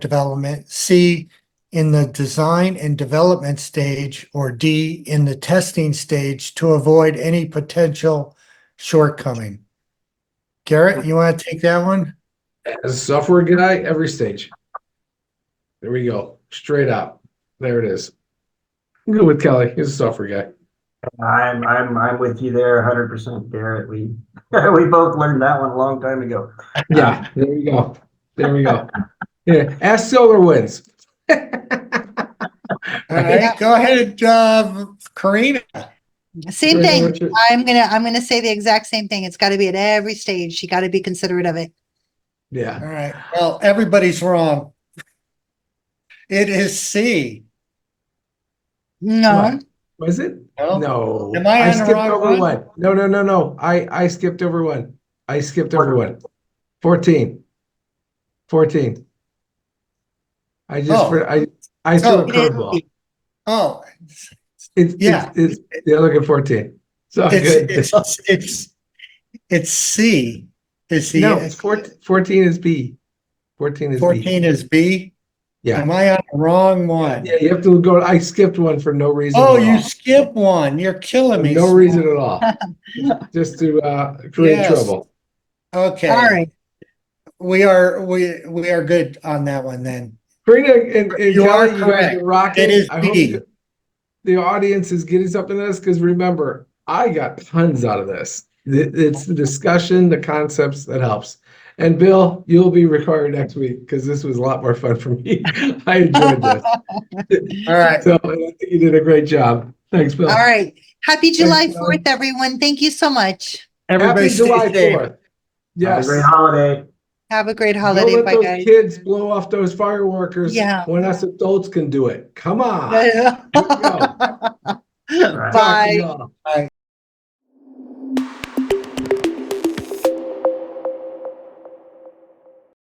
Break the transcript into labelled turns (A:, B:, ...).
A: development, C, in the design and development stage, or D, in the testing stage to avoid any potential shortcoming. Garrett, you want to take that one?
B: As a software guy, every stage. There we go. Straight up. There it is. I'm good with Kelly. He's a software guy.
C: I'm I'm I'm with you there, hundred percent, Garrett. We we both learned that one a long time ago.
B: Yeah, there we go. There we go. Yeah, ask Solar Winds.
A: All right, go ahead, uh, Karina.
D: Same thing. I'm gonna, I'm gonna say the exact same thing. It's gotta be at every stage. You gotta be considerate of it.
B: Yeah.
A: All right, well, everybody's wrong. It is C.
D: No,
B: What? Was it?
A: No?
B: No.
A: Oh, Am I on the
B: skipped
A: wrong
B: over
A: one?
B: No, no, no, no. I, I skipped over one. I skipped over one. 14. 14. I just,
A: Oh.
B: for- I, I threw
A: Oh.
B: a curveball.
A: Oh,
B: It's,
A: Yeah.
B: yeah. it's, it's, yeah, look at 14. So
A: Oh,
B: good.
A: it's, it's, it's, it's C. Is
B: no, it's
A: the,
B: 14, 14 is B. 14 is B.
A: fourteen is B?
B: Yeah.
A: Am I on the wrong one?
B: Yeah, you have to go. I skipped one for no reason.
A: Oh,
B: at
A: you
B: all.
A: skip one. You're killing me.
B: no reason at all. just to uh, create
A: Yes.
B: trouble.
D: all
A: Okay,
D: right.
A: we are, we, we are good on that one then.
B: Karina and, and
A: You are
B: Kelly, you guys
A: correct.
B: are rocking.
A: It is
B: I hope
A: B.
B: the- the audience is getting something out of this because remember, I got tons out of this. Th- It's the discussion, the concepts that helps. And Bill, you'll be required next week because this was a lot more fun for me. I enjoyed this.
A: All right,
B: So I think you did a great job. Thanks, Bill.
D: All right. Happy July
B: Thanks, Mom.
D: fourth, everyone. Thank you so much.
A: everybody
B: Happy July
A: stay safe.
B: 4th.
C: Have a
B: Yes.
C: great holiday.
D: Have a great
B: Don't
D: holiday.
B: let
D: Bye,
B: those
D: guys.
B: kids blow off those fireworkers
D: Yeah.
B: when us adults can do it. Come on. Here we go.
D: Bye.
B: Talk to y'all.